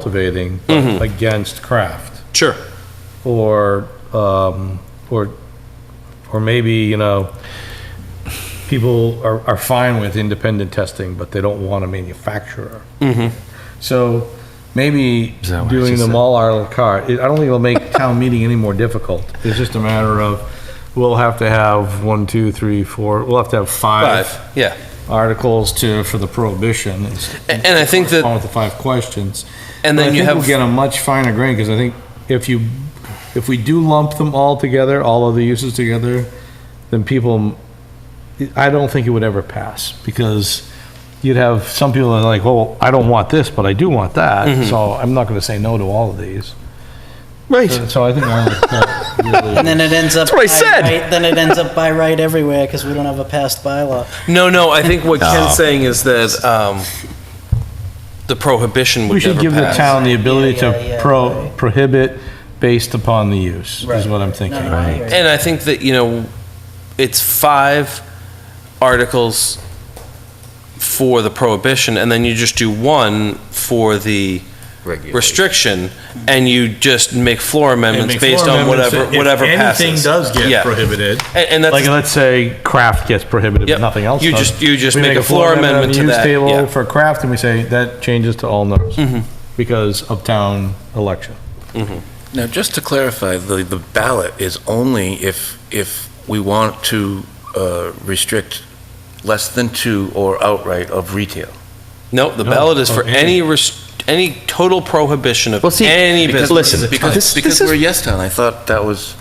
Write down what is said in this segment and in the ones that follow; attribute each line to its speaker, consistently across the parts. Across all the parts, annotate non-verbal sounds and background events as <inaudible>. Speaker 1: cultivating but
Speaker 2: Mm-hmm.
Speaker 1: against craft,
Speaker 2: Sure.
Speaker 1: or, um, or, or maybe, you know, people are, are fine with independent testing, but they don't want a manufacturer. So maybe
Speaker 2: Mm-hmm. Is that what I
Speaker 1: doing
Speaker 2: just
Speaker 1: them
Speaker 2: said?
Speaker 1: all à la carte, it- I don't think it'll make town meeting any more difficult. It's just a matter of, we'll have to have one, two, three, four, we'll have to have
Speaker 2: Five,
Speaker 1: five
Speaker 2: yeah.
Speaker 1: articles to, for the prohibition. and-
Speaker 2: A- And I think
Speaker 1: along
Speaker 2: that,
Speaker 1: with the five questions.
Speaker 2: and
Speaker 1: But I
Speaker 2: then you
Speaker 1: think
Speaker 2: have,
Speaker 1: We'll get a much finer grain, because I think if you, if we do lump them all together, all of the uses together, then people, I don't think it would ever pass, because you'd have some people that are like, well, I don't want this, but I do want
Speaker 2: Mm-hmm.
Speaker 1: that, so I'm not gonna say no to all of these.
Speaker 2: right,
Speaker 1: So I think. I
Speaker 3: And then it ends up.
Speaker 2: That's what I
Speaker 3: by
Speaker 2: said.
Speaker 3: right- Then it ends up by right everywhere because we don't have a passed bylaw.
Speaker 2: no, no, I think what Ken's saying is that, um, the prohibition
Speaker 1: We
Speaker 2: would
Speaker 1: should
Speaker 2: never
Speaker 1: give the
Speaker 2: pass.
Speaker 1: town the ability
Speaker 3: Yeah, yeah,
Speaker 1: to
Speaker 3: yeah,
Speaker 1: pro,
Speaker 3: right.
Speaker 1: prohibit based upon the use, is
Speaker 3: Right.
Speaker 1: what I'm
Speaker 3: No,
Speaker 1: thinking.
Speaker 3: no, I hear you.
Speaker 2: And I think that, you know, it's five articles for the prohibition, and then you just do one for the restriction, and you just make floor amendments
Speaker 1: And make
Speaker 2: based
Speaker 1: floor
Speaker 2: on
Speaker 1: amendments
Speaker 2: whatever,
Speaker 1: if- if
Speaker 2: whatever passes.
Speaker 1: Anything does
Speaker 2: Yeah.
Speaker 1: get prohibited.
Speaker 2: And, and that's.
Speaker 1: Like, let's say craft gets prohibited,
Speaker 2: Yep.
Speaker 1: but nothing else
Speaker 2: You
Speaker 1: does.
Speaker 2: just- you just
Speaker 1: We
Speaker 2: make a floor amendment
Speaker 1: on
Speaker 2: to
Speaker 1: the use
Speaker 2: that,
Speaker 1: table
Speaker 2: yeah. Mm-hmm.
Speaker 1: For craft, and we say that changes to all no's because of town election.
Speaker 4: Now, just to clarify, the, the ballot is only if, if we want to uh, restrict less than two or outright of retail.
Speaker 2: No, the
Speaker 1: No,
Speaker 2: ballot
Speaker 5: oh,
Speaker 2: is for
Speaker 1: okay.
Speaker 2: any, rest- any total prohibition of
Speaker 6: Well, see,
Speaker 2: any
Speaker 4: Because-
Speaker 2: business.
Speaker 6: listen,
Speaker 2: Because
Speaker 4: Because,
Speaker 6: this-
Speaker 4: because
Speaker 6: this is-
Speaker 4: we're a yes town, I thought that was,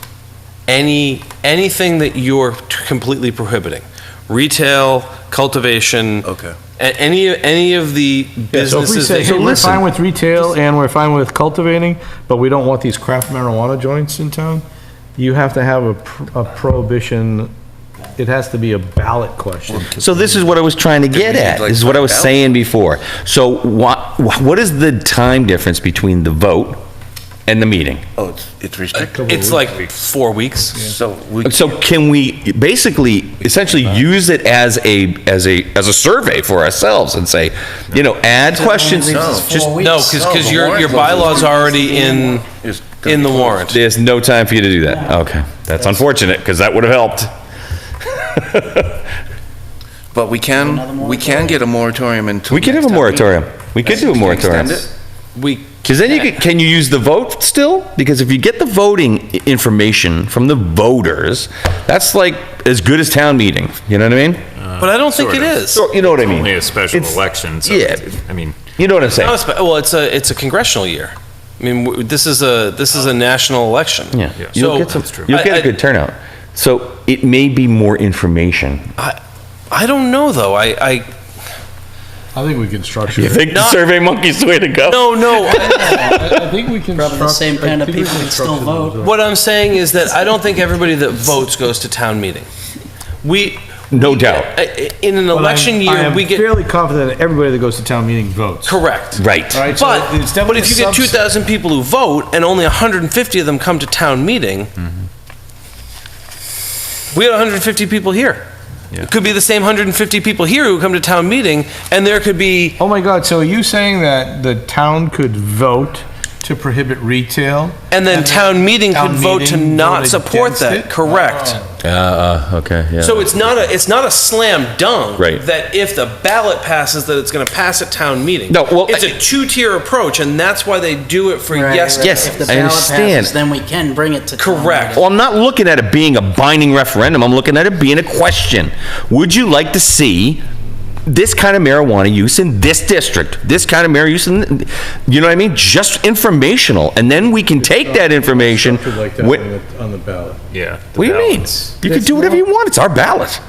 Speaker 2: any, anything that you're t- completely prohibiting. Retail, cultivation,
Speaker 4: okay.
Speaker 2: a- any, any of the
Speaker 1: So if we
Speaker 2: businesses
Speaker 1: say,
Speaker 2: that
Speaker 1: hey, we're
Speaker 2: listen.
Speaker 1: fine with retail and we're fine with cultivating, but we don't want these craft marijuana joints in town, you have to have a pr- a prohibition, it has to be a ballot question.
Speaker 6: So this is what I was trying to get
Speaker 4: we
Speaker 6: at.
Speaker 4: need, like,
Speaker 6: This is what I was
Speaker 4: five
Speaker 6: saying before. So what, what is the time difference between the vote and the meeting?
Speaker 4: Oh, it's, it's restricted.
Speaker 2: It's like four weeks.
Speaker 4: So we.
Speaker 6: So can we basically, essentially use it as a, as a, as a survey for ourselves and say, you know, add questions?
Speaker 3: leaves us
Speaker 6: Just,
Speaker 3: four
Speaker 2: No,
Speaker 3: weeks.
Speaker 2: because,
Speaker 4: No, Oh, the
Speaker 2: your,
Speaker 4: warrant
Speaker 2: your
Speaker 4: goes on.
Speaker 2: bylaw's already in,
Speaker 4: It's gonna
Speaker 2: in the
Speaker 4: be closed.
Speaker 2: warrant.
Speaker 6: there's no time for you to do that. Okay, that's unfortunate, because that would have helped.
Speaker 4: But we
Speaker 3: Another
Speaker 4: can, we can
Speaker 3: moratorium.
Speaker 4: get a moratorium until.
Speaker 6: We could have
Speaker 4: next
Speaker 6: a
Speaker 4: town meeting.
Speaker 6: moratorium. We could do a
Speaker 4: Can you extend
Speaker 6: moratorium.
Speaker 4: it?
Speaker 2: We,
Speaker 6: Because then you could, can you use the vote still? Because if you get the voting i- information from the voters, that's like as good as town meeting. You know what I mean?
Speaker 2: but I don't think it
Speaker 5: Uh, sort of.
Speaker 2: is.
Speaker 6: So, you know what I mean?
Speaker 5: Only a special
Speaker 6: It's-
Speaker 5: election, so,
Speaker 6: yeah.
Speaker 5: I mean,
Speaker 6: You know what I'm
Speaker 2: Not a
Speaker 6: saying?
Speaker 2: spe- Well, it's a, it's a congressional year. I mean, w- this is a, this is a national election.
Speaker 6: Yeah.
Speaker 5: Yeah.
Speaker 6: You'll
Speaker 2: So-
Speaker 6: get some,
Speaker 5: That's true.
Speaker 6: you'll
Speaker 2: I-
Speaker 6: get
Speaker 2: I-
Speaker 6: a good turnout. So it may be more information.
Speaker 2: I, I don't know, though. I, I,
Speaker 1: I think we can
Speaker 2: <laughs>
Speaker 1: structure.
Speaker 6: You think the
Speaker 2: Not-
Speaker 6: Survey Monkey's the way to go?
Speaker 2: no,
Speaker 1: <laughs>
Speaker 2: no.
Speaker 1: I think we can.
Speaker 3: Probably the
Speaker 1: struct-
Speaker 3: same
Speaker 1: I
Speaker 3: kind of
Speaker 1: think we
Speaker 3: people
Speaker 1: can
Speaker 3: that still
Speaker 1: structure
Speaker 3: vote.
Speaker 1: those.
Speaker 2: What I'm saying is that I don't think everybody that votes goes to town meeting. We.
Speaker 6: No
Speaker 2: we-
Speaker 6: doubt.
Speaker 2: I- I- In an
Speaker 1: But I'm-
Speaker 2: election year, we
Speaker 1: I am
Speaker 2: get,
Speaker 1: fairly confident that everybody that goes to town meeting votes.
Speaker 2: correct.
Speaker 6: Right.
Speaker 1: All right, so it's
Speaker 2: But, but
Speaker 1: definitely
Speaker 2: if you
Speaker 1: a
Speaker 2: get
Speaker 1: subset.
Speaker 2: 2,000 people who vote and only 150 of them come to town meeting, we had 150 people here. It could be the same 150 people here who come to town meeting, and there could be,
Speaker 1: Oh my God, so are you saying that the town could vote to prohibit retail?
Speaker 2: and then town meeting could
Speaker 1: Town
Speaker 2: vote to
Speaker 1: meeting
Speaker 2: not
Speaker 1: voted
Speaker 2: support
Speaker 1: against
Speaker 2: that.
Speaker 1: it? Oh.
Speaker 2: Correct.
Speaker 6: Uh, okay, yeah.
Speaker 2: So it's not a, it's not a slam dunk.
Speaker 6: Right.
Speaker 2: That if the ballot passes, that it's gonna pass at town meeting.
Speaker 6: No, well,
Speaker 2: It's
Speaker 6: I-
Speaker 2: a two-tier approach, and that's why they do it for
Speaker 3: Right,
Speaker 2: yes.
Speaker 3: right.
Speaker 6: Yes,
Speaker 3: If the
Speaker 6: I
Speaker 3: ballot
Speaker 6: understand.
Speaker 3: passes, Then we can bring it to. town
Speaker 2: Correct.
Speaker 3: meeting.
Speaker 6: Well, I'm not looking at it being a binding referendum. I'm looking at it being a question. Would you like to see this kind of marijuana use in this district? This kind of marijuana use in, you know what I mean? Just informational, and then we can take that information.
Speaker 1: Structured like that
Speaker 6: wi-
Speaker 1: on the- on the ballot.
Speaker 5: yeah. the
Speaker 6: What do you mean?
Speaker 5: balance.
Speaker 6: You can do whatever you want. It's our ballot.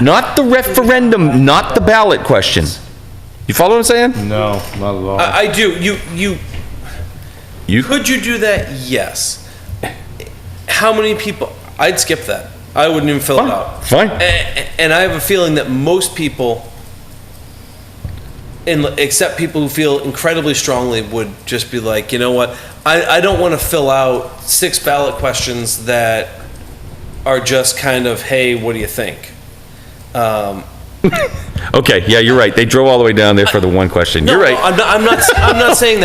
Speaker 6: Not the referendum, not the ballot question. You follow what I'm saying?
Speaker 1: No, not at all.
Speaker 2: I, I do, you, you,
Speaker 6: You,
Speaker 2: could you do that? Yes. How many people, I'd skip that. I wouldn't even fill it
Speaker 6: Fine,
Speaker 2: out.
Speaker 6: fine.
Speaker 2: A- a- And I have a feeling that most people, in- except people who feel incredibly strongly, would just be like, you know what? I, I don't want to fill out six ballot questions that are just kind of, hey, what do you think? Um,
Speaker 6: Okay, yeah, you're right. They drove all the way down there for the one question. You're right.
Speaker 2: I'm not, I'm not, I'm not saying that.